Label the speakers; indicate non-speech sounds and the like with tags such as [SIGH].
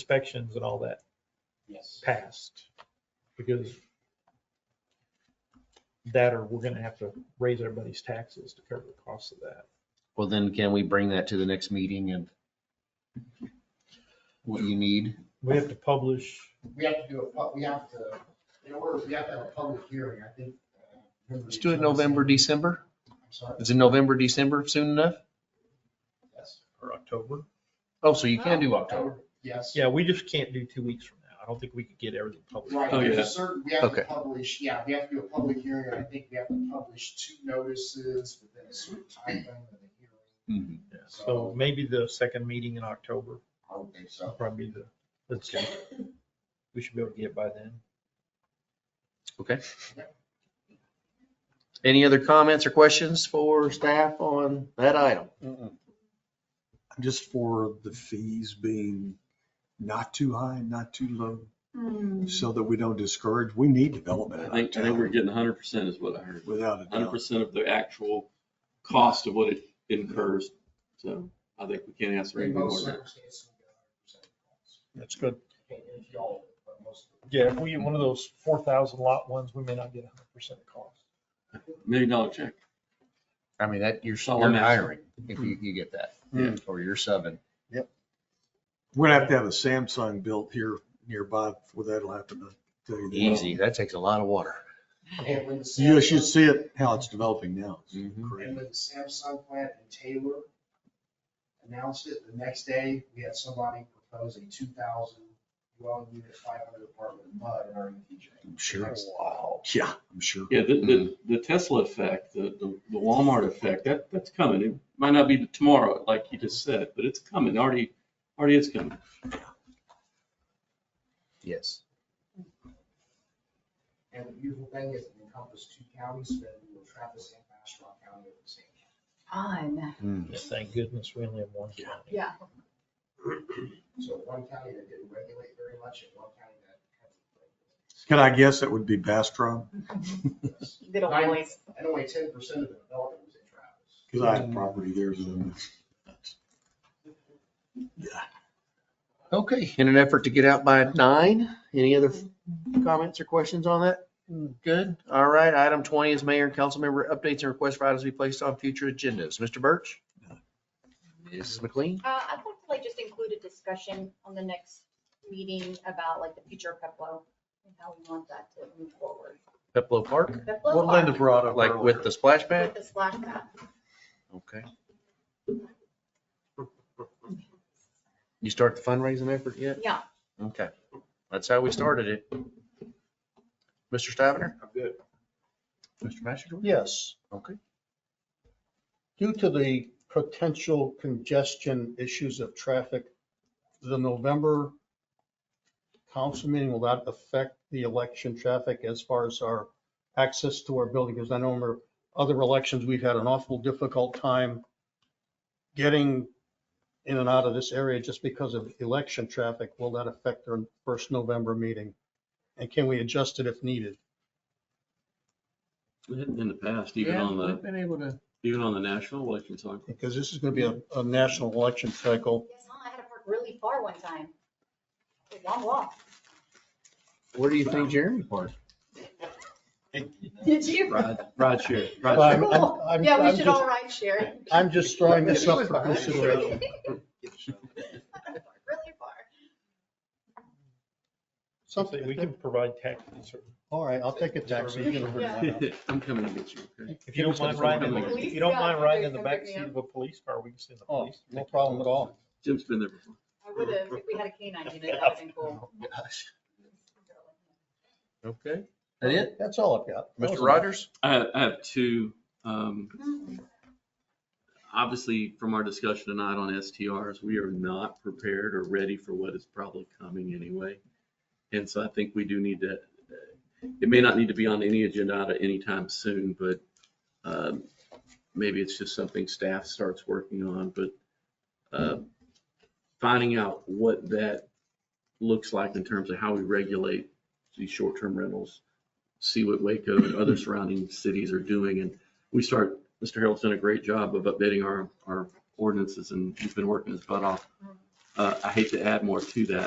Speaker 1: inspections and all that
Speaker 2: Yes.
Speaker 1: passed. Because that or we're gonna have to raise everybody's taxes to cover the cost of that.
Speaker 3: Well, then can we bring that to the next meeting and what you need?
Speaker 1: We have to publish,
Speaker 2: We have to do a, pub- we have to, in order, we have to have a public hearing, I think. uh, remember
Speaker 3: Let's
Speaker 2: the
Speaker 3: do it November, December.
Speaker 2: I'm sorry,
Speaker 3: Is it November, December soon enough?
Speaker 2: yes,
Speaker 4: Or October.
Speaker 3: Oh, so you can do October.
Speaker 2: yes.
Speaker 1: yeah, we just can't do two weeks from now. I don't think we could get everything published.
Speaker 2: Right,
Speaker 4: Oh,
Speaker 2: there's
Speaker 4: yeah.
Speaker 2: a certain, we have to
Speaker 3: Okay.
Speaker 2: publish, yeah, we have to do a public hearing, and I think we have to publish two notices within a certain time frame of the hearing.
Speaker 1: Yeah, So maybe the second meeting in October,
Speaker 2: I would think so.
Speaker 1: will probably be the, let's, we should be able to get by then.
Speaker 3: Okay. Any other comments or questions for staff on that item?
Speaker 4: Just for the fees being not too high, not too low, so that we don't discourage, we need development. in
Speaker 5: I
Speaker 4: our
Speaker 5: think, I think we're
Speaker 4: town,
Speaker 5: getting hundred percent is what I heard.
Speaker 4: Without a
Speaker 5: Hundred
Speaker 4: doubt.
Speaker 5: percent of the actual cost of what it incurs. So I think we can't ask for
Speaker 2: In
Speaker 5: anything more
Speaker 2: most
Speaker 5: than that.
Speaker 2: circumstances, we get 100% calls.
Speaker 1: That's good.
Speaker 2: And if y'all, but most of
Speaker 1: Yeah, if we get one of those four thousand lot ones, we may not get hundred percent of cost.
Speaker 5: Million dollar check.
Speaker 3: I mean, that, you're
Speaker 5: Solid.
Speaker 3: you're hiring if you, you get that.
Speaker 5: Yeah.
Speaker 3: Or you're subbing.
Speaker 4: We're gonna have to have a Samsung built here nearby for that'll happen. I tell you that.
Speaker 3: Easy. That takes a lot of water.
Speaker 2: them. And when the
Speaker 4: You should
Speaker 2: Samsung-
Speaker 4: see it, how it's developing now. It's
Speaker 5: Mm-hmm.
Speaker 3: Mhm.
Speaker 4: crazy.
Speaker 2: And when the Samsung plant in Taylor announced it, the next day, we had somebody propose a two thousand dwelling unit, five hundred apartment mud in our E ETJ.
Speaker 4: I'm sure.
Speaker 2: Wow.
Speaker 4: Yeah, I'm sure.
Speaker 5: Yeah, the, the,
Speaker 3: Mm-hmm.
Speaker 5: the Tesla effect, the, the the Walmart effect, that, that's coming. It might not be tomorrow, like you just said, but it's coming. Already, already is coming.
Speaker 3: Yes.
Speaker 2: And the beautiful thing is it encompassed two counties, so that we were Travis and Bastrop County at the same time.
Speaker 6: Fun.
Speaker 1: Thank goodness we only have one.
Speaker 4: Yeah.
Speaker 1: county.
Speaker 6: Yeah.
Speaker 2: So one county that didn't regulate very much and one county that. had-
Speaker 4: Can I guess it would be [LAUGHS] Bastrop?
Speaker 6: [LAUGHS] Little
Speaker 2: Nine-
Speaker 6: boys.
Speaker 2: And only ten percent of the development was in Travis.
Speaker 4: Cause I have property there. so- Yeah.
Speaker 3: Okay, in an effort to get out by nine, any other comments or questions on that? Mm, Good, all right, item twenty is mayor and council member updates and requests for items to be placed on future agendas. Mr. Birch? Mrs. McLean?
Speaker 6: Uh, I'd like to like just include a discussion on the next meeting about like the future of Peplo and how we want that to move forward.
Speaker 3: Peplo Park,
Speaker 6: Peplo
Speaker 4: What Linda
Speaker 6: Park
Speaker 4: brought up.
Speaker 3: like with the splash pad?
Speaker 6: With the splash pad.
Speaker 3: Okay. You start the fundraising effort yet?
Speaker 6: Yeah,
Speaker 3: Okay, that's how we started it. Mr. Stivner?
Speaker 1: I'm good.
Speaker 3: Mr. Master?
Speaker 7: Yes,
Speaker 3: Okay.
Speaker 7: due to the potential congestion issues of traffic, the November council meeting will not affect the election traffic as far as our access to our building. Because I know in other elections, we've had an awful difficult time getting in and out of this area just because of election traffic. Will that affect our first November meeting? And can we adjust it if needed?
Speaker 5: We hadn't In the past, even on the,
Speaker 3: been able to.
Speaker 5: even on the national election cycle.
Speaker 7: Because this is going to be a, a national election cycle.
Speaker 6: yes, I had to park really far one time. It was a Long walk.
Speaker 3: Where do you think Jeremy parked?
Speaker 6: Did you? [LAUGHS]
Speaker 3: Ride, ride share.
Speaker 7: Well, I'm- I'm-
Speaker 6: Cool.
Speaker 7: I'm-
Speaker 6: Yeah,
Speaker 7: I'm
Speaker 6: we should
Speaker 7: just-
Speaker 6: all ride share.
Speaker 7: [LAUGHS] I'm just throwing this up for consideration.
Speaker 6: [LAUGHS] Really far.
Speaker 7: [LAUGHS]
Speaker 1: Something, we can provide tax.
Speaker 7: All right, I'll take a taxi. You can hurry me up.
Speaker 5: I'm [LAUGHS] coming to get you. okay?
Speaker 1: If you don't mind riding, in the- if you don't mind riding in the backseat of a police car, we can send the
Speaker 7: Oh,
Speaker 1: police.
Speaker 7: no problem at all.
Speaker 5: Jim's been there before.
Speaker 6: I would have, if we had a canine unit, that would have been cool.
Speaker 7: Oh
Speaker 3: Okay. That it?
Speaker 7: That's all I've got.
Speaker 3: Mr. Rogers?
Speaker 5: I have, I have two, um,
Speaker 6: Uhum.
Speaker 5: obviously from our discussion tonight on STRs, we are not prepared or ready for what is probably coming anyway. And so I think we do need to, it may not need to be on any agenda at any time soon, but um, maybe it's just something staff starts working on, but uh, finding out what that looks like in terms of how we regulate these short-term rentals, see what Waco and other surrounding cities are doing. And we start Mr. Harold's done a great job of updating our, our ordinances and he's been working his butt off. Uh, I hate to add more to that,